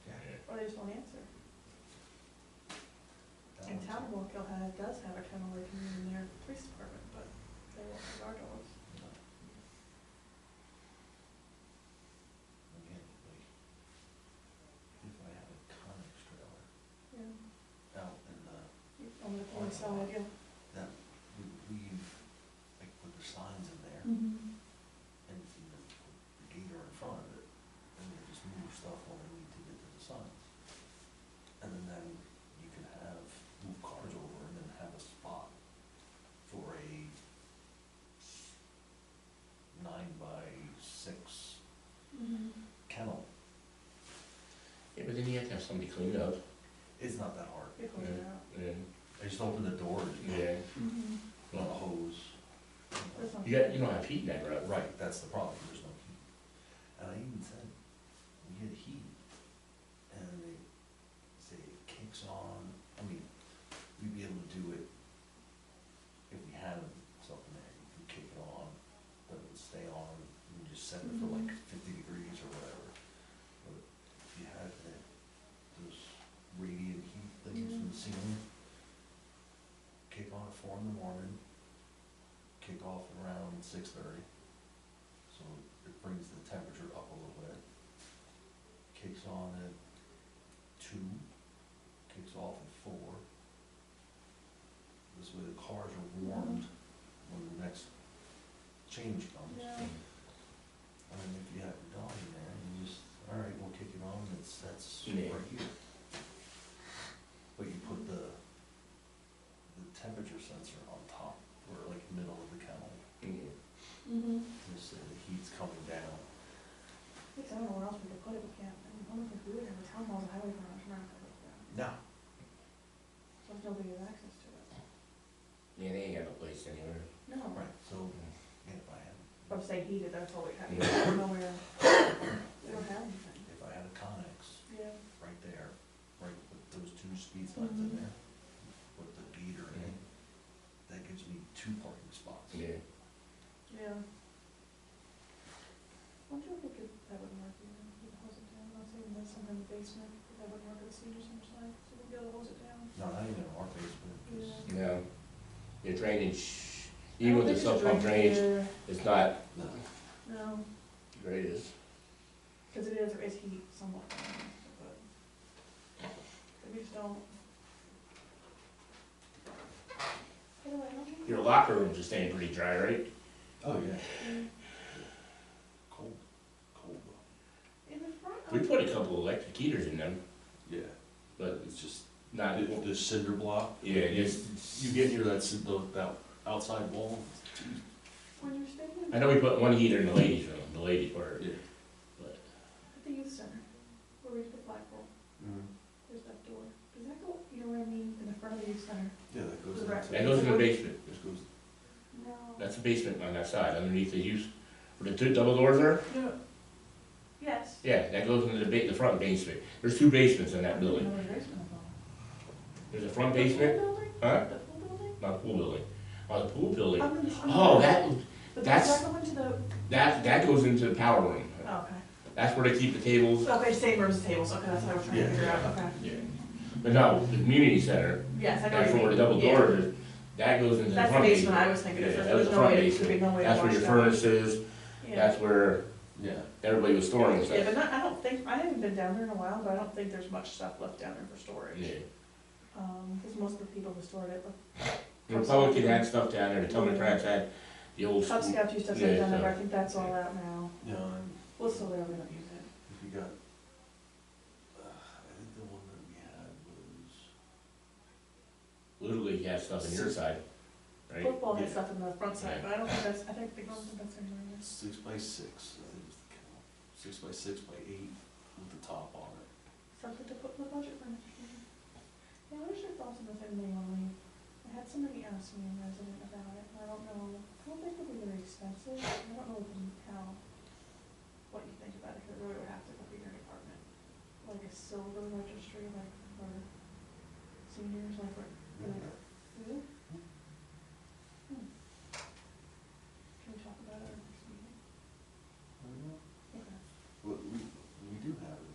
They just won't answer. And Townwalk Ohio does have a kennel like in their police department, but they won't have our dogs. Again, like, if I had a Conex trailer Yeah, out in the, on the police side, yeah. oh, uh, that would leave, like, with the signs in there, Mm-hmm. and if you just put the gator in front of it, and they just move stuff when they need to get to the signs. And then, then you could have, move cars over and then have a spot for a s- nine by six kennel. Yeah, but then you have to have somebody clean up. It's not that hard. People are out. Yeah. I just open the door and, you know, Yeah. Mm-hmm. not a hose. That's not- You got, you don't have heat in that room. uh, Right, that's the problem, there's no heat. And I even said, we get heat, and they say it kicks on, I mean, we'd be able to do it if we had something there, you could kick it on, but it would stay on, and just set it for like fifty degrees or whatever. But if you had that, those radiant heat things from the ceiling, kick on at four in the morning, kick off around six thirty. So it brings the temperature up a little bit. Kicks on at two, kicks off at four. This way the cars are warmed when the next change comes. Yeah. I mean, if you have your dog in there, you just, all right, we'll kick it on, it's, that's right Yeah. here. But you put the, the temperature sensor on top, or like middle of the kennel, Yeah. Mm-hmm. just so the heat's coming down. I think I don't know where else we could put it, we can't, I mean, I don't think we would have a town hall, a highway garage around it like that, No. so if nobody has access to it. Yeah, they ain't got no place anywhere. No, Right, so, yeah, if I had, but say heated, that's all we have, Yeah. nowhere, we don't have anything. if I had a Conex Yeah. right there, right with those two speed signs Mhm. in there, with the beater in it, that gives me two parking spots. Yeah. Yeah. Wonder if we could, that would work, you know, we could hose it down, I'm thinking that's something in the basement, but that would work at the senior center side, so we'd be able to hose it down. No, not even our basement, 'cause Yeah. No. Your drainage, even with the sub pump drainage, it's not No. No, the greatest. cause it is, there is heat somewhat, but, but we just don't. By the way, I don't think- Your locker rooms are staying pretty dry, right? Oh, yeah. Mm, Cold, cold though. In the front. We of- put a couple electric heaters in them, Yeah, but it's just, not, the, the cinder block. Yeah, You- it's- You get near that, cin- the, that outside wall. When you're standing I at know we put one heater in the ladies' room, the ladies' part. Yeah. But the youth center, where we used to flagpole, there's that door, does that go, you know what I mean, in the front of the youth center? Yeah, that goes. Correct. into- that goes in the basement. This goes, No. That's the basement on that side, underneath the use, where the two double doors are. yeah, Yes. Yeah, that goes into the ba, the front basement. There's two basements in that building. There's a front basement, huh? The pool building? Not a pool building. Oh, the pool building. I'm gonna- I'm Oh, gonna- that, But that's- that's going to the, that, that goes into the power room. oh, okay. That's where they keep the tables. So they say rooms and tables, okay, that's what I was trying to Yeah. figure out, okay. Yeah. But no, the community center, Yes, I know. that's what you where the mean. double Yeah. doors is, that goes into the That's the front basement. basement I was thinking, Yeah, of. that was there's the no front way, there'd be basement. no way to That's where wash your that. furnace is, Yeah, that's where yeah. everybody was storing yeah, stuff. but not, I don't think, I haven't been down there in a while, but I don't think there's much stuff left down there for storage. Yeah. Um, cause most of the people who stored it, The Republican had stuff down there, the Democrats had the old the Cub school. Scouts used to have Yeah, uh, stuff down there, but I so- think that's all out now. You know, and Well, it's still there, we don't use it. if you got, uh, I think the one that we had was, Little League had stuff in your side, right? Football had Yeah. stuff in the front side, Yeah. but I don't think that's, I think, I don't think that's anywhere in this. six by six, I think it was the count, six by six by eight with the top on it. Something to put in the budget for next year. Yeah, what is your thoughts on the family only? I had somebody ask me in resident about it, and I don't know, I don't think it'll be very expensive, I don't know how, what you think about it, 'cause it really would have to Hmm.